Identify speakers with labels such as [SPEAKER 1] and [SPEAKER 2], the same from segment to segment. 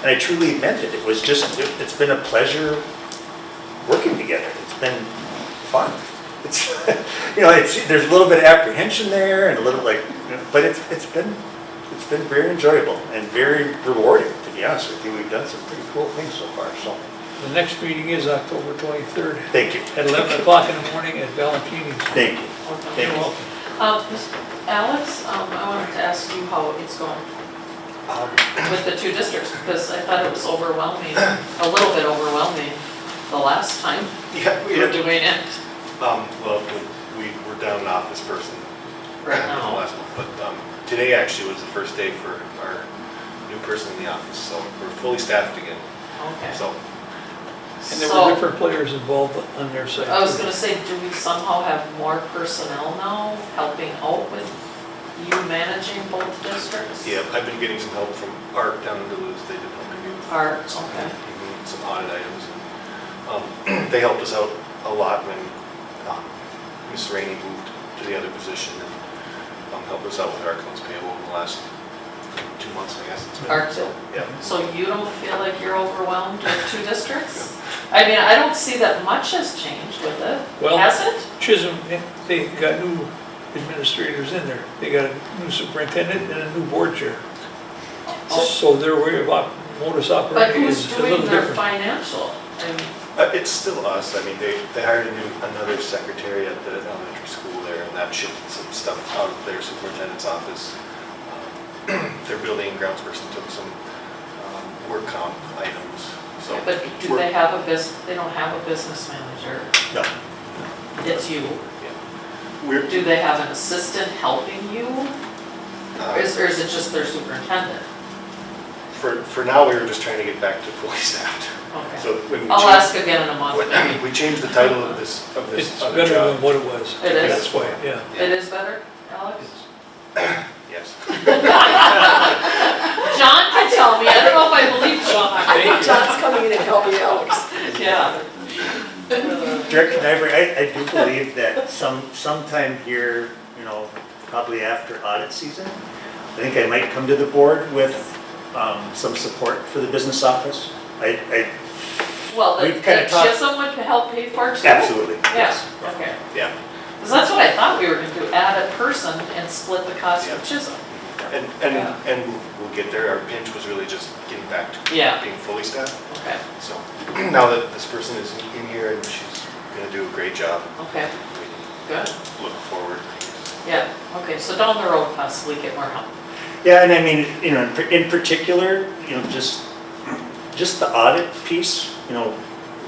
[SPEAKER 1] And I truly meant it. It was just, it- it's been a pleasure working together. It's been fun. It's, you know, it's, there's a little bit of apprehension there and a little like, but it's, it's been, it's been very enjoyable and very rewarding, to be honest with you. We've done some pretty cool things so far, so,
[SPEAKER 2] The next meeting is October 23rd
[SPEAKER 1] thank you.
[SPEAKER 2] at 11 o'clock in the morning at Valentini's.
[SPEAKER 1] Thank you.
[SPEAKER 2] You're
[SPEAKER 1] Thank you.
[SPEAKER 2] welcome.
[SPEAKER 3] Uh, Mr. Alex, um, I wanted to ask you how it's going
[SPEAKER 1] Um,
[SPEAKER 3] with the two districts, because I thought it was overwhelming, a little bit overwhelming the last time
[SPEAKER 4] Yeah,
[SPEAKER 3] we
[SPEAKER 4] we
[SPEAKER 3] were
[SPEAKER 4] had,
[SPEAKER 3] doing it.
[SPEAKER 4] um, well, we, we were down an office person
[SPEAKER 3] Right
[SPEAKER 4] in the
[SPEAKER 3] now.
[SPEAKER 4] last month, but, um, today actually was the first day for our new person in the office, so we're fully staffed again,
[SPEAKER 3] Okay.
[SPEAKER 4] so.
[SPEAKER 2] And there were
[SPEAKER 3] So-
[SPEAKER 2] different players involved on their side.
[SPEAKER 3] I was gonna say, do we somehow have more personnel now helping out with you managing both districts?
[SPEAKER 4] Yeah, I've been getting some help from ARC down in Duluth, they did help me with
[SPEAKER 3] Art,
[SPEAKER 4] some,
[SPEAKER 3] okay.
[SPEAKER 4] even some audit items. and, Um, they helped us out a lot when, um, Ms. Rainey moved to the other position and, um, helped us out with our accounts payable in the last two months, I guess it's been.
[SPEAKER 3] Art,
[SPEAKER 4] Yeah.
[SPEAKER 3] so you don't feel like you're overwhelmed with two districts? I mean, I don't see that much has changed with it,
[SPEAKER 2] Well-
[SPEAKER 3] has it?
[SPEAKER 2] Chisholm, they got new administrators in there. They got a new superintendent and a new board chair. So their way of op- modus
[SPEAKER 3] Oh. But
[SPEAKER 2] operandi is
[SPEAKER 3] who's
[SPEAKER 2] a little
[SPEAKER 3] doing their
[SPEAKER 2] different.
[SPEAKER 3] financial? I mean,
[SPEAKER 4] Uh, It's still us, I mean, they, they hired a new, another secretary at the elementary school there, and that shifted some stuff out of their superintendent's office. Um, Their building and grounds person took some um, work comp items, so.
[SPEAKER 3] But do
[SPEAKER 4] we're-
[SPEAKER 3] they have a bus, they don't have a business manager,
[SPEAKER 4] No.
[SPEAKER 3] it's you.
[SPEAKER 4] We're,
[SPEAKER 3] Do they have an assistant helping you? Or
[SPEAKER 4] uh,
[SPEAKER 3] is, or is it just their superintendent?
[SPEAKER 4] for, for now, we were just trying to get back to fully staffed.
[SPEAKER 3] Okay.
[SPEAKER 4] So when we
[SPEAKER 3] I'll
[SPEAKER 4] changed,
[SPEAKER 3] ask again in a month.
[SPEAKER 4] when we changed the title of this, of
[SPEAKER 2] It's
[SPEAKER 4] this other
[SPEAKER 2] better than
[SPEAKER 4] job.
[SPEAKER 2] what it was.
[SPEAKER 3] It is?
[SPEAKER 2] That's why, yeah.
[SPEAKER 3] It is better, Alex?
[SPEAKER 4] Yes.
[SPEAKER 3] John can tell me, I don't know if I believe John.
[SPEAKER 2] Thank you.
[SPEAKER 5] John's coming in and helping Alex.
[SPEAKER 3] Yeah.
[SPEAKER 1] Director Nyberg, I, I do believe that some, sometime here, you know, probably after audit season, I think I might come to the board with, um, some support for the business office. I, I,
[SPEAKER 3] Well, the
[SPEAKER 1] We've kinda
[SPEAKER 3] the
[SPEAKER 1] talked-
[SPEAKER 3] Chisholm would help pay for it? too?
[SPEAKER 1] absolutely,
[SPEAKER 3] Yeah,
[SPEAKER 1] yes.
[SPEAKER 3] okay.
[SPEAKER 4] Yeah.
[SPEAKER 3] Because that's what I thought we were gonna do, add a person and split the cost with Chisholm.
[SPEAKER 4] And, and, and we'll get there. Our pinch was really just getting back
[SPEAKER 3] Yeah.
[SPEAKER 4] to being fully staffed.
[SPEAKER 3] Okay,
[SPEAKER 4] So now that this person is in here and she's gonna do a great job,
[SPEAKER 3] okay,
[SPEAKER 4] we
[SPEAKER 3] good.
[SPEAKER 4] look forward.
[SPEAKER 3] Yeah, okay, so down the road possibly get more help.
[SPEAKER 1] Yeah, and I mean, you know, in par- in particular, you know, just, just the audit piece, you know,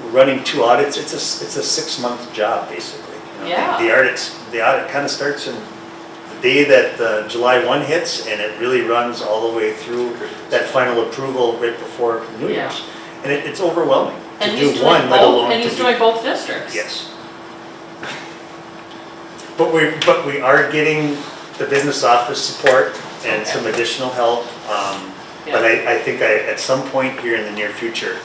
[SPEAKER 1] running two audits, it's a, s- it's a six-month job, basically. you know.
[SPEAKER 3] Yeah.
[SPEAKER 1] The audits, the audit kind of starts in the day that uh, July 1 hits, and it really runs all the way through that final approval right before New
[SPEAKER 3] Yeah.
[SPEAKER 1] Year's. And it- it's overwhelming to
[SPEAKER 3] And he's
[SPEAKER 1] do
[SPEAKER 3] doing
[SPEAKER 1] one, let
[SPEAKER 3] both-
[SPEAKER 1] alone
[SPEAKER 3] And
[SPEAKER 1] to
[SPEAKER 3] he's
[SPEAKER 1] do-
[SPEAKER 3] doing both districts?
[SPEAKER 1] Yes. But we, but we are getting the business office support and some additional help. um, But I, I think I, at some point here in the near future,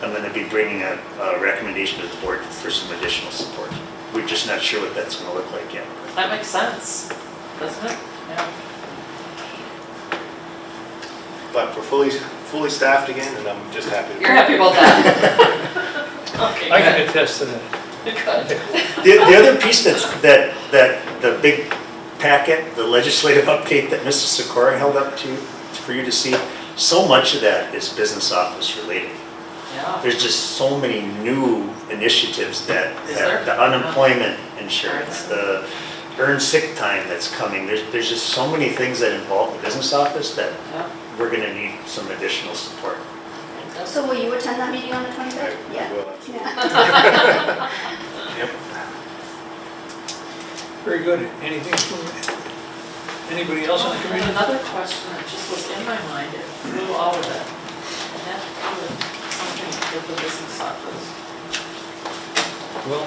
[SPEAKER 1] I'm gonna be bringing a, a recommendation to the board for some additional support. We're just not sure what that's gonna look like yet.
[SPEAKER 3] That makes sense, doesn't it? Yeah.
[SPEAKER 4] But we're fully, fully staffed again and I'm just happy. to be
[SPEAKER 3] You're happy about that? Okay,
[SPEAKER 2] I can
[SPEAKER 3] good.
[SPEAKER 2] attest to that.
[SPEAKER 3] Good.
[SPEAKER 1] The, the other piece that's, that, that, the big packet, the legislative update that Mrs. Sikora held up to, for you to see, so much of that is business office related.
[SPEAKER 3] Yeah,
[SPEAKER 1] There's just so many new initiatives that,
[SPEAKER 3] Is
[SPEAKER 1] that-
[SPEAKER 3] there?
[SPEAKER 1] the unemployment insurance, the earned sick time that's coming. There's, there's just so many things that involve the business office that
[SPEAKER 3] yeah.
[SPEAKER 1] we're gonna need some additional support.
[SPEAKER 3] That's-
[SPEAKER 6] So will you attend that meeting on the 23rd?
[SPEAKER 4] I
[SPEAKER 6] Yeah.
[SPEAKER 4] will.
[SPEAKER 6] Yeah.
[SPEAKER 2] Very good. Anything from, anybody else on the
[SPEAKER 3] And
[SPEAKER 2] committee?
[SPEAKER 3] Another question that just was in my mind, it flew out of it. And that was something with the business office,
[SPEAKER 2] Well,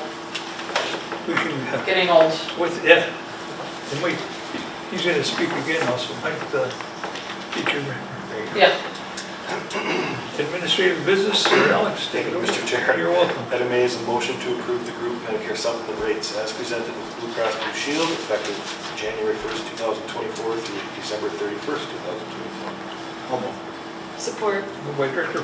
[SPEAKER 2] we can uh,
[SPEAKER 3] getting old.
[SPEAKER 2] With, yeah, and wait, he's gonna speak again also, Mike, the teacher,
[SPEAKER 4] There you go.
[SPEAKER 3] Yeah,
[SPEAKER 2] administrative business, Sir Alex, take it
[SPEAKER 4] Thank you,
[SPEAKER 2] over.
[SPEAKER 4] Mr. Chair.
[SPEAKER 2] You're welcome.
[SPEAKER 4] Item A is a motion to approve the group Medicare supplement rates as presented with Blue Cross Blue Shield effective January 1st, 2024 through December 31st, 2024.
[SPEAKER 5] Support.
[SPEAKER 2] Moved by Director